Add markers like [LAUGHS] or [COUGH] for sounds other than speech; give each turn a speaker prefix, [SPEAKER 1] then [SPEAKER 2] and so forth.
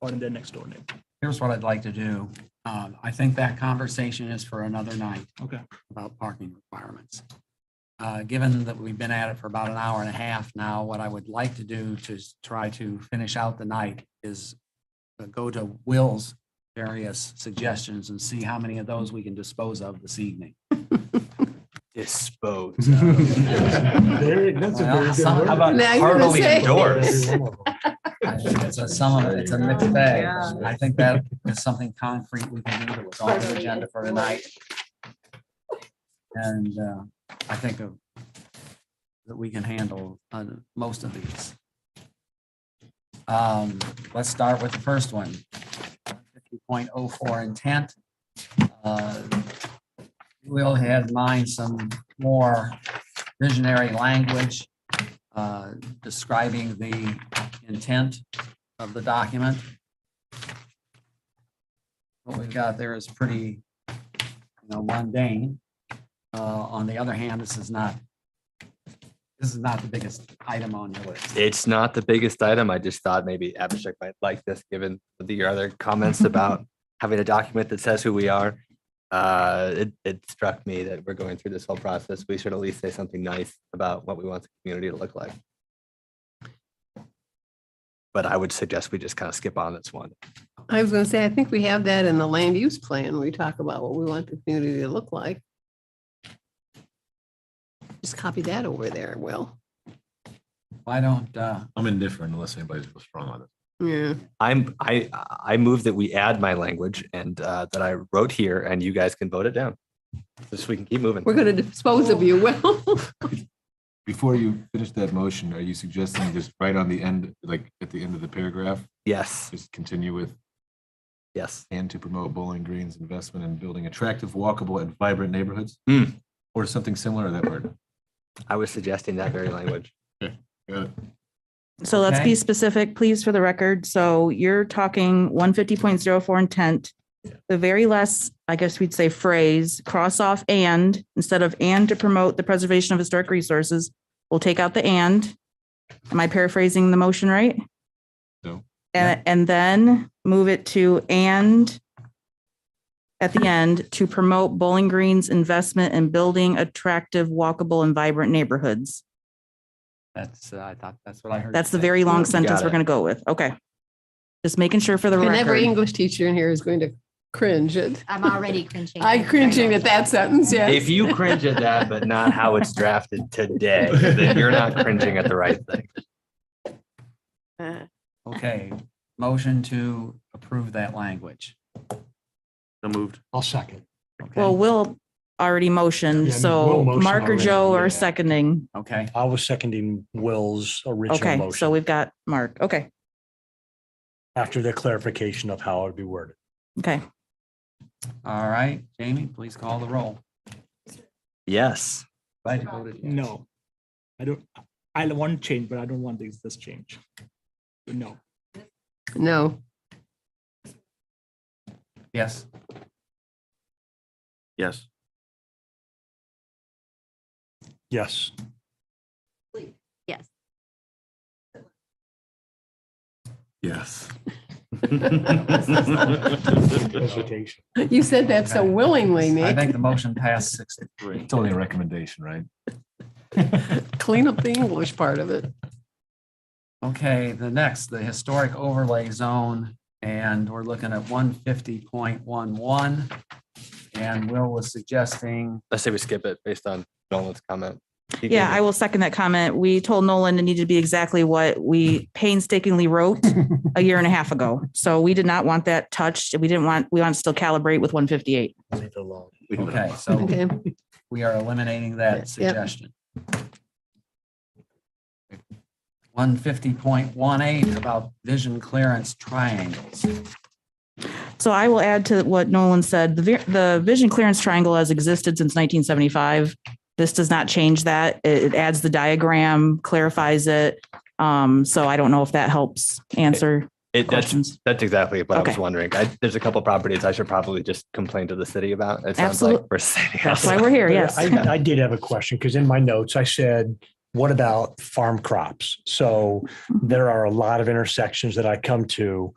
[SPEAKER 1] or in their next door neighbor.
[SPEAKER 2] Here's what I'd like to do. Um, I think that conversation is for another night.
[SPEAKER 1] Okay.
[SPEAKER 2] About parking requirements. Uh, given that we've been at it for about an hour and a half now, what I would like to do to s- try to finish out the night is uh, go to Will's various suggestions and see how many of those we can dispose of this evening.
[SPEAKER 3] Dispose.
[SPEAKER 4] Very- That's a
[SPEAKER 2] Well,
[SPEAKER 4] very
[SPEAKER 2] some-
[SPEAKER 4] good
[SPEAKER 2] how
[SPEAKER 4] word.
[SPEAKER 2] about
[SPEAKER 5] Now you're gonna
[SPEAKER 3] Heartily
[SPEAKER 5] say-
[SPEAKER 3] endorse.
[SPEAKER 2] I think It's a sum of, it's a mixed bag. I think that is something concrete we can do that was on the agenda for tonight. And uh, I think of- that we can handle on most of these. Um, Let's start with the first one. Point oh four intent. Uh, Will had in mind some more visionary language uh, describing the intent of the document. What we've got there is pretty, you know, mundane. Uh, on the other hand, this is not, this is not the biggest item on your list.
[SPEAKER 3] It's not the biggest item. I just thought maybe abstract might like this, given the other comments about having a document that says who we are. Uh, it, it struck me that we're going through this whole process. We should at least say something nice about what we want the community to look like. But I would suggest we just kind of skip on this one.
[SPEAKER 5] I was gonna say, I think we have that in the land use plan. We talk about what we want the community to look like. Just copy that over there, Will.
[SPEAKER 2] Why don't, uh,
[SPEAKER 6] I'm indifferent unless anybody's real strong on it.
[SPEAKER 5] Yeah.
[SPEAKER 3] I'm, I, I move that we add my language and uh, that I wrote here and you guys can vote it down. Just so we can keep moving.
[SPEAKER 5] We're gonna dispose of you, Will.
[SPEAKER 6] Before you finish that motion, are you suggesting just right on the end, like at the end of the paragraph,
[SPEAKER 3] Yes,
[SPEAKER 6] just continue with
[SPEAKER 3] yes.
[SPEAKER 6] and to promote Bowling Green's investment in building attractive, walkable and vibrant neighborhoods?
[SPEAKER 3] Hmm.
[SPEAKER 6] Or something similar to that word?
[SPEAKER 3] I was suggesting that very language.
[SPEAKER 6] Got it.
[SPEAKER 7] So let's
[SPEAKER 2] Okay.
[SPEAKER 7] be specific, please, for the record. So you're talking one fifty point zero four intent. The very last, I guess we'd say phrase, cross off and, instead of and to promote the preservation of historic resources, we'll take out the and. Am I paraphrasing the motion right?
[SPEAKER 6] No.
[SPEAKER 7] And, and then move it to and at the end to promote Bowling Green's investment in building attractive, walkable and vibrant neighborhoods.
[SPEAKER 2] that's, uh, I thought, that's what I heard.
[SPEAKER 7] That's the
[SPEAKER 2] you say.
[SPEAKER 7] very long sentence
[SPEAKER 3] Got
[SPEAKER 7] we're
[SPEAKER 3] it.
[SPEAKER 7] gonna go with. Okay. Just making sure for the
[SPEAKER 5] And every
[SPEAKER 7] record.
[SPEAKER 5] English teacher in here is going to cringe at,
[SPEAKER 8] I'm already cringing.
[SPEAKER 5] I cringing at that sentence, yeah.
[SPEAKER 3] If you cringe at that, but not how it's drafted today, [LAUGHS] then you're not cringing at the right thing.
[SPEAKER 2] Okay, motion to approve that language.
[SPEAKER 4] I'll second.
[SPEAKER 2] Okay.
[SPEAKER 7] Well, Will already motioned,
[SPEAKER 4] Yeah, no,
[SPEAKER 7] so
[SPEAKER 4] Will motioned
[SPEAKER 7] Mark or
[SPEAKER 4] already.
[SPEAKER 7] Joe are
[SPEAKER 4] Yeah.
[SPEAKER 7] seconding.
[SPEAKER 2] Okay,
[SPEAKER 4] I was seconding Will's original
[SPEAKER 7] Okay, so
[SPEAKER 4] motion
[SPEAKER 7] we've got Mark. Okay,
[SPEAKER 4] after the clarification of how it'd be worded.
[SPEAKER 7] okay.
[SPEAKER 2] all right, Jamie, please call the roll.
[SPEAKER 3] Yes.
[SPEAKER 2] Glad you voted yes.
[SPEAKER 1] No. I don't, I want change, but I don't want this, this change. No.
[SPEAKER 5] No,
[SPEAKER 2] Yes.
[SPEAKER 3] [LAUGHS]
[SPEAKER 9] Yes.
[SPEAKER 4] Yes,
[SPEAKER 8] Yes.
[SPEAKER 6] Yes.
[SPEAKER 4] hesitation.
[SPEAKER 5] you said that so
[SPEAKER 2] Okay.
[SPEAKER 5] willingly,
[SPEAKER 2] I
[SPEAKER 5] Nick.
[SPEAKER 2] think the motion passed six.
[SPEAKER 6] It's only a recommendation, right?
[SPEAKER 5] Clean up the English part of it.
[SPEAKER 2] Okay, the next, the historic overlay zone, and we're looking at one fifty point one one. And Will was suggesting,
[SPEAKER 3] I say we skip it based on Nolan's comment. He
[SPEAKER 7] Yeah,
[SPEAKER 3] gave
[SPEAKER 7] I
[SPEAKER 3] it-
[SPEAKER 7] will second that comment. We told Nolan it needed to be exactly what we painstakingly wrote a year and a half ago. So we did not want that touched. We didn't want, we want to still calibrate with one fifty-eight.
[SPEAKER 4] Leave it alone.
[SPEAKER 2] okay, so
[SPEAKER 5] Okay,
[SPEAKER 2] we are eliminating that
[SPEAKER 5] Yep.
[SPEAKER 2] suggestion. One fifty point one eight about vision clearance triangles.
[SPEAKER 7] So I will add to what Nolan said, the, vi- the vision clearance triangle has existed since nineteen seventy-five. This does not change that. It, it adds the diagram, clarifies it. Um, so I don't know if that helps answer
[SPEAKER 3] It, that's,
[SPEAKER 7] questions.
[SPEAKER 3] that's exactly what I was
[SPEAKER 7] Okay.
[SPEAKER 3] wondering. I, there's a couple properties I should probably just complain to the city about. It sounds like
[SPEAKER 7] Absolute-
[SPEAKER 3] we're sitting
[SPEAKER 7] That's why
[SPEAKER 3] outside.
[SPEAKER 7] we're here,
[SPEAKER 4] But
[SPEAKER 7] yes.
[SPEAKER 4] I, I did have a question because in my notes, I said, what
[SPEAKER 7] Mm-hmm.
[SPEAKER 4] about farm crops? So there are a lot of intersections that I come to